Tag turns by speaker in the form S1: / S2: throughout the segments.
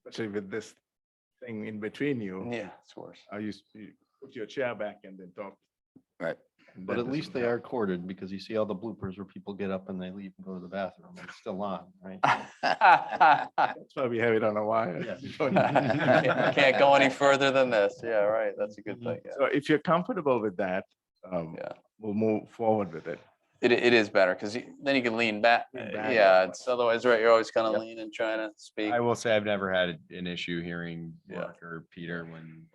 S1: especially with this thing in between you,
S2: Yeah, it's worse.
S1: how you, s- you put your chair back and then talk.
S3: Right.
S1: And
S2: But
S1: that
S2: at least
S1: doesn't
S2: they
S1: help.
S2: are corded because you see all the bloopers where people get up and they leave and go to the bathroom. and It's still on, right?
S1: That's why we have it on a wire.
S2: Yeah.
S1: You don't-
S2: Can't
S3: Can't
S2: Can't
S3: go any further than this. Yeah, right. That's a good thing.
S1: So if you're comfortable with that, um,
S3: Yeah.
S1: we'll move forward with it.
S3: It, it is better because then you can lean back. Uh,
S1: Lean back.
S3: Yeah, it's otherwise, right, you're always kind of
S2: Yep.
S3: leaning, trying to speak.
S4: I will say I've never had an issue hearing
S3: Yeah.
S4: Mark or Peter when,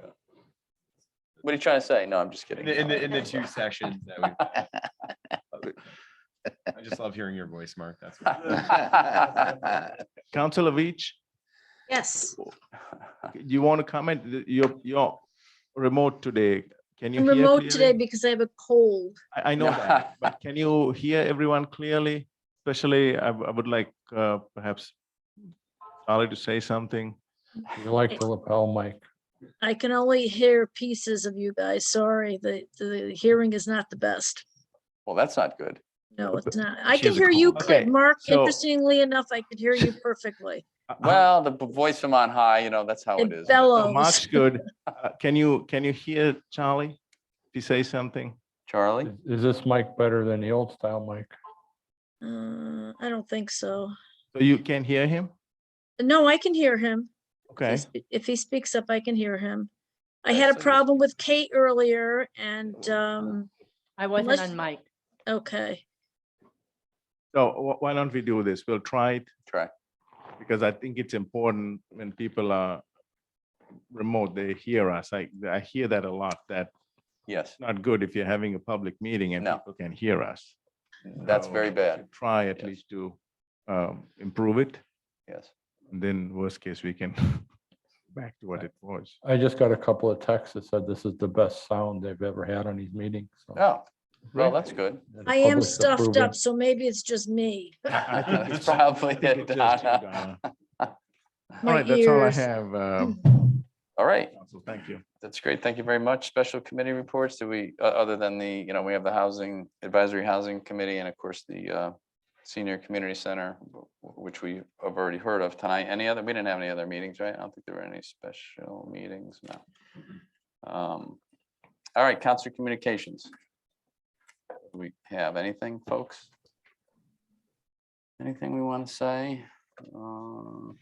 S3: What are you trying to say? No, I'm just
S4: in
S3: kidding.
S4: the, in the, in the two sessions that we. I just love hearing your voice, Mark. That's.
S1: Counselor Veach,
S5: Yes,
S1: you want to comment? Th- You're, you're remote today. Can you?
S5: I'm
S1: hear
S5: remote today
S1: clearly?
S5: because I have a cold.
S1: I, I know that, but can you hear everyone clearly? Especially, I, w- I would like, uh, perhaps Charlie to say something.
S6: You like the lapel mic.
S5: I can only hear pieces of you guys. Sorry, the, the hearing is not the best.
S3: Well, that's not good.
S5: No, it's not. I
S1: She
S5: can
S1: has a
S5: hear you,
S1: cold.
S5: cl-
S3: Okay,
S5: Mark.
S1: so-
S5: Interestingly enough, I could hear you perfectly.
S1: Uh, uh,
S3: Well, the b- voice from on high, you know, that's how it
S5: It
S3: is. but-
S1: uh, Mark's
S5: bellows.
S1: good. Uh, Can you, can you hear Charlie? If he says something?
S3: Charlie?
S6: Is- Is this mic better than the old style mic?
S5: Uh, I don't think so.
S1: So you can hear him?
S5: No, I can hear him. If he
S1: Okay.
S5: sp- If he speaks up, I can hear him. I
S3: Okay,
S5: had a
S3: so-
S5: problem with Kate earlier and, um,
S7: I wasn't
S5: Unless-
S7: on mic.
S5: okay.
S1: So wh- why don't we do this? We'll try it
S3: Try.
S1: because I think it's important when people are remote, they hear us. I, I hear that a lot, that
S3: Yes,
S1: it's not good if you're having a public meeting and
S3: No.
S1: people can hear us.
S3: that's
S1: So
S3: very
S1: we
S3: bad.
S1: should Try at
S3: Yes.
S1: least to um, improve it.
S3: Yes.
S1: And then worst case, we can back to what it was.
S6: I just got a couple of texts that said this is the best sound they've ever had on these meetings. so
S3: Oh, well,
S1: Right.
S3: that's good.
S6: the
S5: I am
S6: public's
S5: stuffed
S6: approving.
S5: up, so maybe it's just me.
S1: I- I think
S3: It's
S1: it's-
S3: probably
S1: I think
S3: it,
S1: it's just you,
S3: Donna.
S1: Donna. All
S5: My
S1: right, that's all I
S5: ears.
S1: have. um,
S3: All right.
S1: Council. Thank you.
S3: That's great. Thank you very much. Special committee reports, do we, o- other than the, you know, we have the Housing Advisory Housing Committee and of course the uh, Senior Community Center, w- w- which we have already heard of tonight. Any other, we didn't have any other meetings, right? I don't think there were any special meetings, no. Um, All right, Council Communications. Do We have anything, folks? Anything we want to say? Uh,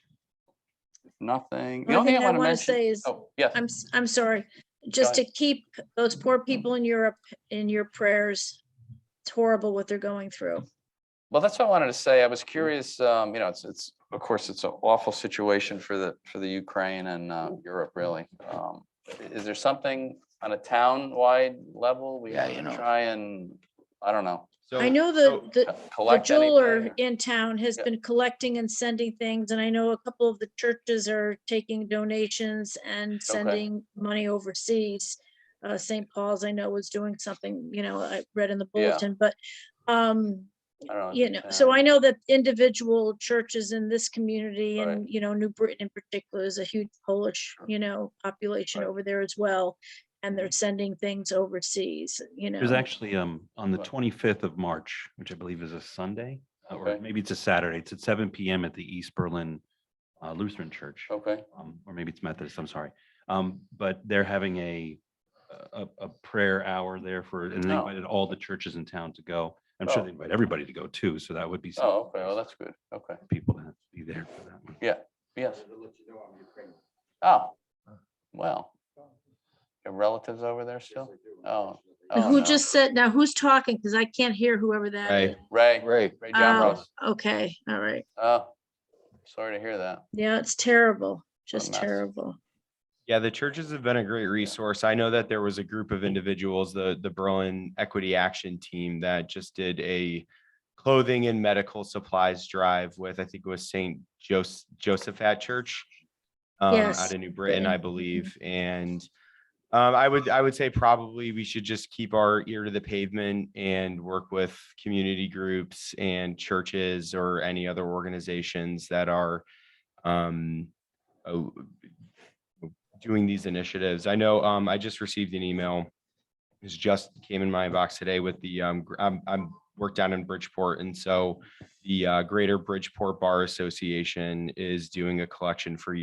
S3: Nothing. The
S5: Only
S3: only
S5: thing
S3: thing
S5: I
S3: want to
S5: want to
S3: mention.
S5: say is,
S3: Oh, yes.
S5: I'm, s- I'm sorry, just to
S3: ahead.
S5: keep those poor people in Europe in your prayers. It's horrible what they're going through.
S3: Well, that's what I wanted to say. I was curious, um, you know, it's, it's, of course, it's an awful situation for the, for the Ukraine and, uh,
S5: Mm-hmm.
S3: Europe, really. Um, i- Is there something on a town-wide level? we
S2: Yeah, you
S3: wanna
S2: know.
S3: Try and, I don't know.
S5: I know the,
S3: co-
S5: the, the
S3: collect anything
S5: jeweler
S3: or-
S5: in town has
S3: Yeah.
S5: been collecting and sending things, and I know a couple of the churches are taking donations and sending money overseas. Uh, St. Paul's, I know, was doing something, you know, I read in the
S3: Yeah.
S5: bulletin, but, um,
S3: I don't
S5: you know, so I know that individual churches in this community
S3: Right.
S5: and, you know, New Britain in particular is a huge Polish, you know, population
S3: Right. Mm-hmm.
S5: over there as well. And they're sending things overseas, you know.
S8: There's actually, um, on the
S3: Right.
S8: twenty-fifth of March, which I believe is a Sunday, uh, or
S3: Okay.
S8: maybe it's a Saturday, it's at seven PM at the East Berlin uh, Lutheran Church,
S3: Okay,
S8: um, or maybe it's Methodist, I'm sorry. Um, but they're having a, a, a prayer hour there for, and they
S3: Oh.
S8: invited all the churches in town to go. I'm sure
S3: Oh.
S8: they invite everybody to go too, so that would be.
S3: oh,
S8: something
S3: okay, well, that's good, okay,
S8: for People to be there for that one.
S3: yes. Oh, well. Your relatives over there still? Oh.
S5: Now,
S3: oh,
S5: Who
S3: no.
S5: just said, now who's talking? Because I can't hear whoever that
S4: Ray.
S5: is.
S3: Ray,
S2: Great.
S3: Ray John
S5: Oh,
S3: Rose.
S5: okay, all right.
S3: Oh, sorry to hear that.
S5: Yeah, it's terrible, just
S3: mess.
S5: terrible.
S4: Yeah, the churches have been a great resource. I know that there was a group of individuals, the, the Berlin Equity Action Team that just did a clothing and medical supplies drive with, I think it was St. Joseph, Josephat Church um,
S5: Yes,
S4: out of New Britain,
S5: Britain.
S4: I believe. And um, I would, I would say probably we should just keep our ear to the pavement and work with community groups and churches or any other organizations that are um, oh, doing these initiatives. I know, um, I just received an email. This just came in my box today with the, um, gr- I'm, I'm worked down in Bridgeport. And so the, uh, Greater Bridgeport Bar Association is doing a collection for you.